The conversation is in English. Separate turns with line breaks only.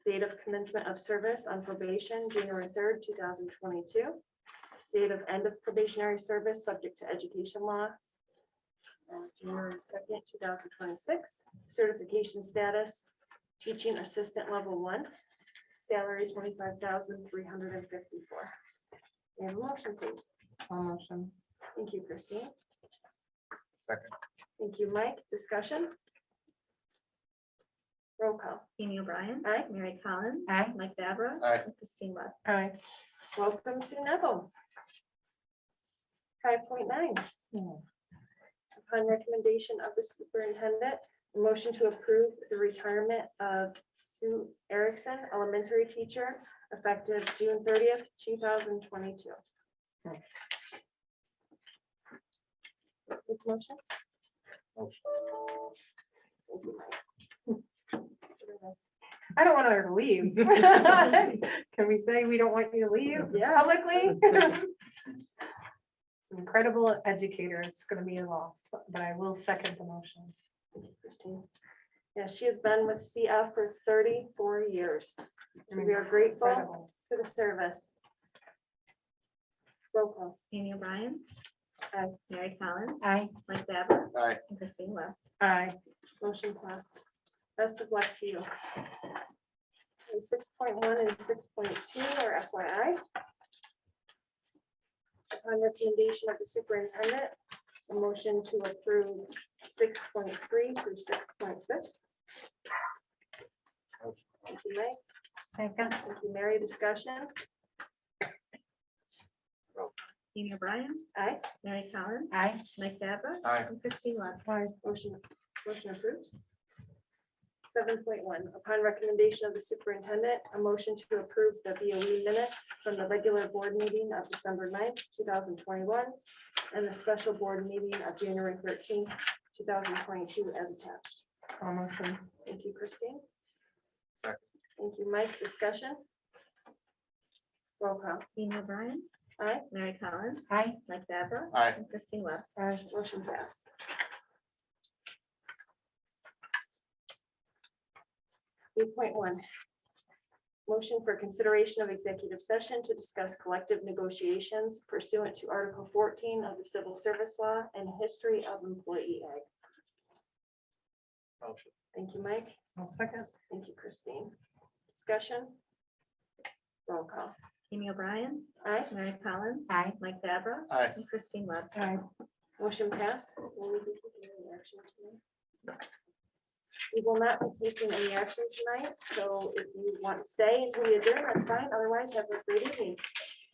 commencement of service on probation, January third, two thousand twenty-two. Date of end of probationary service, subject to education law. uh, January second, two thousand twenty-six, certification status, teaching assistant level one, salary twenty-five thousand three hundred and fifty-four. And motion, please.
I'll motion.
Thank you, Christine.
Second.
Thank you, Mike. Discussion? Roll call.
Amy O'Brien.
Aye.
Mary Collins.
Aye.
Mike Fabra.
Aye.
and Christine Webb.
Aye.
Welcome, Sue Neville. Five point nine, upon recommendation of the superintendent, motion to approve the retirement of Sue Erickson, elementary teacher, effective June thirtieth, two thousand twenty-two. motion?
Motion.
Thank you, Mike.
I don't want her to leave. Can we say we don't want you to leave
Yeah,
publicly? Incredible educator. It's gonna be a loss, but I will second the motion.
Christine. Yeah, she has been with CF for thirty-four years. So We are grateful
Incredible.
for the service. Roll call.
Amy O'Brien. uh,
Aye.
Mary Collins.
Aye.
Mike Fabra.
Aye.
and Christine Webb.
Aye.
Motion passed. Best of luck to you. Six point one and six point two are FYI. Upon recommendation of the superintendent, a motion to approve six point three through six point six.
Motion.
Thank you, Mike.
Second.
Thank you, Mary. Discussion?
Amy O'Brien.
Aye.
Mary Collins.
Aye.
Mike Fabra.
Aye.
and Christine Webb.
Motion, motion approved. Seven point one, upon recommendation of the superintendent, a motion to approve the BOE minutes from the regular board meeting of December 9th, two thousand twenty-one, and the special board meeting of January thirteenth, two thousand twenty-two as attached.
I'll motion.
Thank you, Christine.
Second.
Thank you, Mike. Discussion? Roll call.
Amy O'Brien.
Aye.
Mary Collins.
Aye.
Mike Fabra.
Aye.
and Christine Webb.
Motion passed. Eight point one. Motion for consideration of executive session to discuss collective negotiations pursuant to Article fourteen of the Civil Service Law and history of employee act.
Motion.
Thank you, Mike.
I'll second.
Thank you, Christine. Discussion? Roll call.
Amy O'Brien.
Aye.
Mary Collins.
Aye.
Mike Fabra.
Aye.
and Christine Webb.
Aye.
Motion passed. Will we be taking any action tonight? We will not be taking any action tonight, so if you want to stay until we adjourn, that's fine. Otherwise, have a great evening.